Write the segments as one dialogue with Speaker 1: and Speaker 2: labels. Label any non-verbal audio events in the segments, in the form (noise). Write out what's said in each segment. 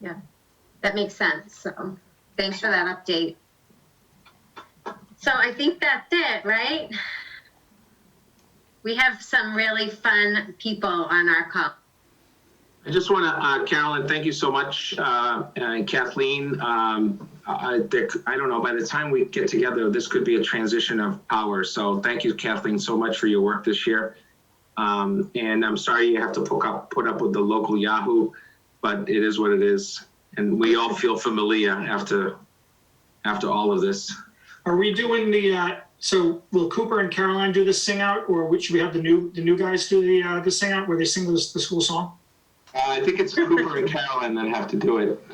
Speaker 1: Yeah, that makes sense. So thanks for that update. So I think that's it, right? We have some really fun people on our call.
Speaker 2: I just want to, Carolyn, thank you so much, uh, and Kathleen. um, I Dick, I don't know, by the time we get together, this could be a transition of power. So thank you, Kathleen, so much for your work this year. Um, And I'm sorry you have to put up, put up with the local Yahoo, but it is what it is. And we all feel familiar after, after all of this.
Speaker 3: Are we doing the, uh, so will Cooper and Caroline do the sing out or would- should we have the new, the new guys do the, uh, the sing out where they sing the, the school song?
Speaker 2: Uh, I think it's Cooper and Carolyn that have to do it.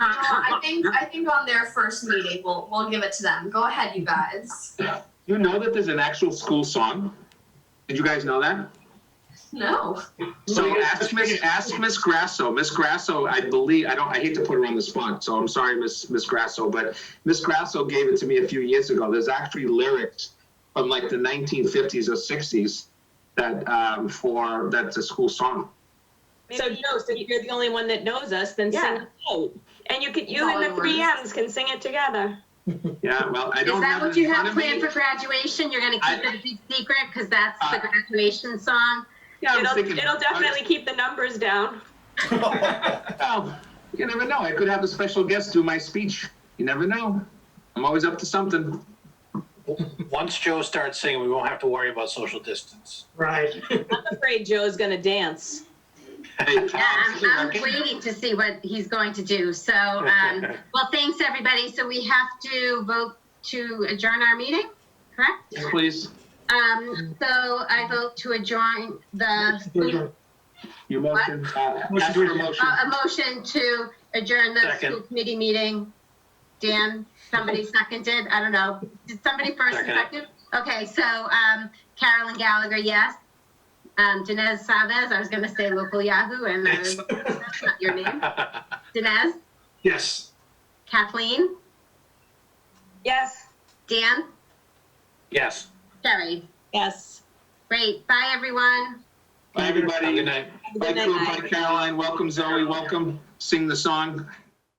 Speaker 4: No, I think I think on their first meeting, we'll we'll give it to them. Go ahead, you guys.
Speaker 2: You know that there's an actual school song? Did you guys know that?
Speaker 4: No,
Speaker 2: So ask Miss ask Miss Grasso. Miss Grasso, I believe I don't. I hate to put her on the spot, so I'm sorry, Miss Miss Grasso, but Miss Grasso gave it to me a few years ago. There's actually lyrics from like the 1950s or 60s that um, for that's a school song.
Speaker 5: So
Speaker 6: Maybe-
Speaker 5: no, so if you're the only one that knows us, then sing
Speaker 6: Yeah.
Speaker 5: it out. And you could, you and the
Speaker 4: Follow
Speaker 5: three
Speaker 4: orders.
Speaker 5: Ms can sing it together.
Speaker 2: Yeah, well, I
Speaker 1: Is
Speaker 2: don't.
Speaker 1: that
Speaker 2: have it
Speaker 1: what you
Speaker 2: in front
Speaker 1: have
Speaker 2: of me.
Speaker 1: planned for graduation? You're gonna keep
Speaker 2: I-
Speaker 1: it a big secret because that's the
Speaker 2: Uh,
Speaker 1: graduation song?
Speaker 2: Yeah, I'm
Speaker 5: It'll,
Speaker 2: thinking-
Speaker 5: it'll definitely keep the numbers down.
Speaker 2: Well, you never know. I could have a special guest do my speech. You never know. I'm always up to something.
Speaker 7: Once Joe starts singing, we won't have to worry about social distance. (laughs)
Speaker 3: Right.
Speaker 5: I'm afraid Joe's gonna dance.
Speaker 2: Hey,
Speaker 1: Yeah, I'm,
Speaker 2: Tom,
Speaker 1: I'm waiting to see what he's going to do. So, um,
Speaker 2: (laughs)
Speaker 1: well, thanks, everybody. So we have to vote to adjourn our meeting, correct?
Speaker 2: please.
Speaker 1: Um, so I vote to adjourn the,
Speaker 3: All
Speaker 2: Your motion. Uh,
Speaker 3: Motion
Speaker 2: ask for
Speaker 3: to
Speaker 2: a motion.
Speaker 1: uh, a motion to adjourn the
Speaker 7: Second.
Speaker 1: school committee meeting. Dan, somebody seconded, I don't know, did somebody first and second?
Speaker 7: Second.
Speaker 1: Okay, so, um, Carolyn Gallagher, yes. Um, Dinesh Savez, I was gonna say local Yahoo, and I was- that's not your name. Dinesh,
Speaker 3: (laughs) Yes.
Speaker 1: Kathleen,
Speaker 5: Yes.
Speaker 1: Dan,
Speaker 7: Yes.
Speaker 1: Sherry.
Speaker 5: Yes.
Speaker 1: Great, bye, everyone.
Speaker 2: Bye, everybody.
Speaker 7: Have a good night.
Speaker 5: Have a
Speaker 2: Bye,
Speaker 5: good
Speaker 2: Coop.
Speaker 5: night.
Speaker 2: Bye, Caroline. Welcome, Zoe. Welcome. Sing the song.